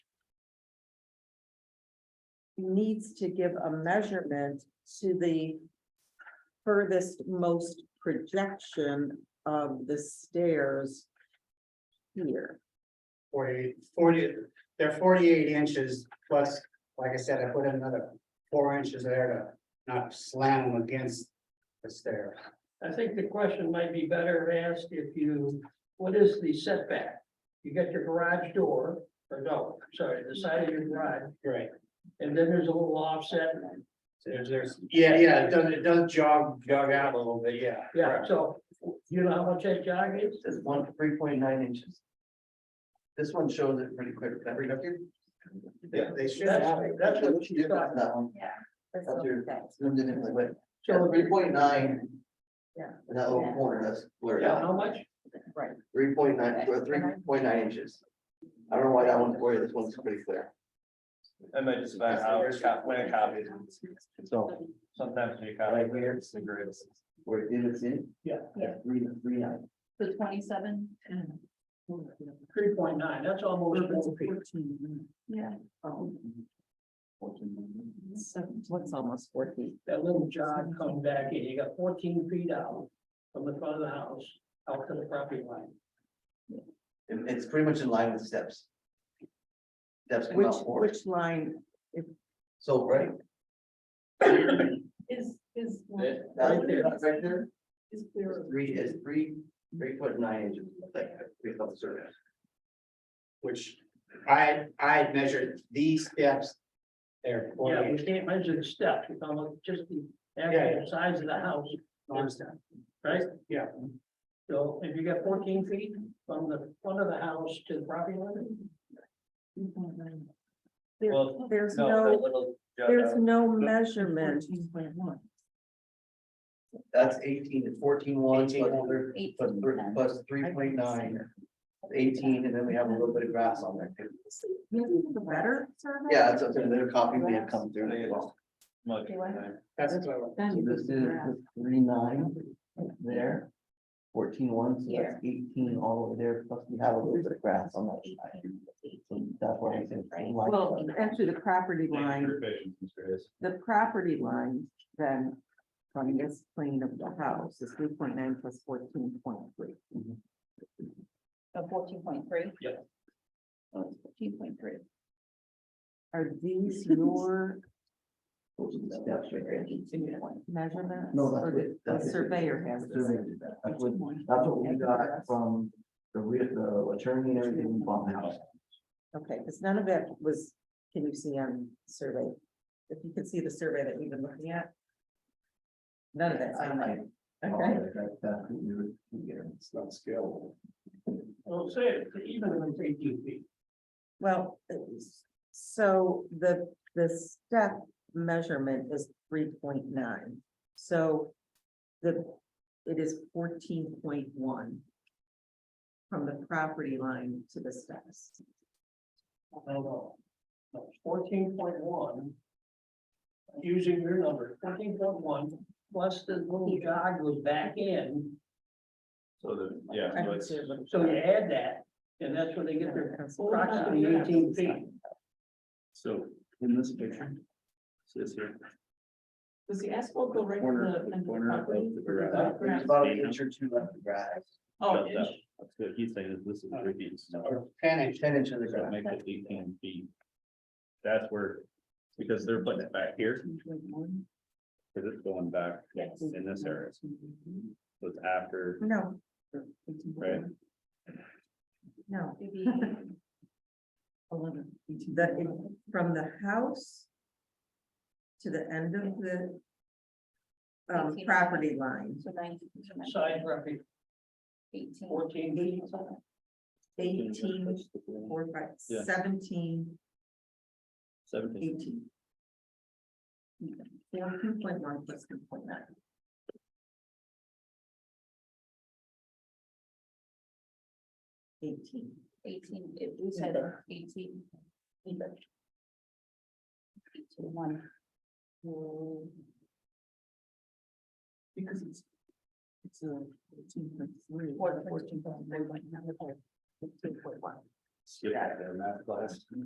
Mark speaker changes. Speaker 1: needs to give a measurement to the furthest most projection of the stairs here.
Speaker 2: Forty, forty, they're forty-eight inches plus, like I said, I put in another four inches there to not slam them against the stair.
Speaker 3: I think the question might be better asked if you, what is the setback? You got your garage door, or no, sorry, the side of your garage,
Speaker 2: Right.
Speaker 3: and then there's a little offset.
Speaker 2: There's, there's, yeah, yeah, it does, it does jog, jog out a little bit, yeah.
Speaker 3: Yeah, so you know how much that jog is?
Speaker 4: This is one, three point nine inches. This one shows it pretty clear. That right up here?
Speaker 2: They, they should have.
Speaker 3: That's, that's what she's
Speaker 4: Yeah, that's
Speaker 3: talking about.
Speaker 4: That one,
Speaker 1: Yeah. That's
Speaker 4: Up here.
Speaker 1: okay.
Speaker 4: zoomed in really way.
Speaker 3: So,
Speaker 4: Three point nine.
Speaker 1: Yeah.
Speaker 4: In that little corner, that's blurred
Speaker 3: yeah,
Speaker 4: out,
Speaker 3: how much?
Speaker 1: Right,
Speaker 4: three point nine, or three point nine inches. I don't know why that one's blurry, this one's pretty clear.
Speaker 5: That might just about
Speaker 2: uh,
Speaker 5: how it's got, when it copied,
Speaker 4: So,
Speaker 5: sometimes when you copy.
Speaker 4: right here, it's the greatest. Where it is in?
Speaker 3: Yeah.
Speaker 4: Yeah, three, three nine.
Speaker 6: The twenty-seven,
Speaker 3: Three point nine, that's almost.
Speaker 6: yeah,
Speaker 1: so what's almost four feet?
Speaker 3: That little jog coming back in, you got fourteen feet out from the front of the house, out to the property line.
Speaker 4: And it's pretty much in line with steps. Steps come
Speaker 1: Which,
Speaker 4: out forward.
Speaker 1: which line,
Speaker 4: So, right?
Speaker 6: is, is,
Speaker 4: That, right there,
Speaker 3: there.
Speaker 4: right there.
Speaker 6: is clear.
Speaker 4: Three is three, three foot nine inches, like, three foot survey.
Speaker 2: Which I, I measured these steps. They're
Speaker 3: Yeah, we
Speaker 2: forty-eight.
Speaker 3: can't measure the steps, we can look just the
Speaker 2: Yeah.
Speaker 3: actual size of the house, right?
Speaker 2: Yeah.
Speaker 3: So if you got fourteen feet from the front of the house to the property line,
Speaker 1: There-
Speaker 5: Well,
Speaker 1: there's
Speaker 5: No, that
Speaker 1: no,
Speaker 5: little jog
Speaker 1: there's
Speaker 5: out.
Speaker 1: no measurement.
Speaker 4: That's eighteen to fourteen ones, plus
Speaker 2: 18.
Speaker 4: three- plus three, plus three point nine, eighteen, and then we have a little bit of grass on there. too.
Speaker 1: Better?
Speaker 4: Yeah, that's, another copy we have come through as well.
Speaker 5: Much.
Speaker 6: They went-
Speaker 2: That's what,
Speaker 4: So This is three nine there. Fourteen ones, so
Speaker 6: Here.
Speaker 4: that's eighteen all over there, plus we have a little bit of grass on that side. So That's why I said.
Speaker 6: Right.
Speaker 1: Well, actually, the property line, the property line then from this plane of the house is three point nine plus fourteen point three. Oh,
Speaker 6: So fourteen point three?
Speaker 3: Yep.
Speaker 6: Fourteen point three.
Speaker 1: Are these your
Speaker 4: Those are the steps right there.
Speaker 1: measurements?
Speaker 4: No, that's
Speaker 1: Or
Speaker 4: what.
Speaker 1: the- The
Speaker 4: that's what-
Speaker 1: surveyor has
Speaker 4: the
Speaker 1: this.
Speaker 4: surveyor did that. That's what, that's what we got from the re, the attorney and everything we bought the house.
Speaker 1: Okay, because none of that was, can you see on survey? If you could see the survey that we've been looking at. None of that's on there. Okay.
Speaker 4: It's not scalable.
Speaker 3: well, say it, even if it's eighteen feet.
Speaker 1: Well, so the, the step measurement is three point nine, so the, it is fourteen point one from the property line to the steps.
Speaker 3: I don't know. Fourteen point one. Using your number, fourteen point one, plus the little jog was back in,
Speaker 5: So the, yeah,
Speaker 1: I
Speaker 5: so
Speaker 1: can
Speaker 5: it's,
Speaker 1: see a little-
Speaker 3: so you add that, and that's where they get their
Speaker 1: That's
Speaker 3: approximately eighteen feet.
Speaker 5: so in this picture. This here.
Speaker 6: Does the asphalt go right
Speaker 5: Corner, corner of the garage.
Speaker 4: There's about an inch or two left of grass,
Speaker 6: Oh,
Speaker 5: That- that- That's what he's saying, is this is three feet. So
Speaker 2: Uh, or ten inch,
Speaker 4: ten inches of
Speaker 5: it
Speaker 4: grass.
Speaker 5: makes it eighteen feet. That's where, because they're putting it back here, because it's going back in this area,
Speaker 1: Mm-hmm.
Speaker 5: so it's after.
Speaker 1: No.
Speaker 5: Right.
Speaker 1: No,
Speaker 6: maybe
Speaker 1: eleven. The, from the house to the end of the um,
Speaker 6: Eighteen.
Speaker 1: property line,
Speaker 6: to ninety, to ninety,
Speaker 3: Side roughly
Speaker 6: eighteen.
Speaker 3: fourteen feet.
Speaker 1: eighteen, four, five,
Speaker 5: Yeah.
Speaker 1: seventeen,
Speaker 5: Seventeen.
Speaker 1: eighteen. Fourteen point one plus two point nine. Eighteen.
Speaker 6: Eighteen, it- we said eighteen. Either. Eighteen, one.
Speaker 1: Because it's, it's a fourteen point three.
Speaker 6: Or fourteen point three, one, number four.
Speaker 5: Skip that there, math class.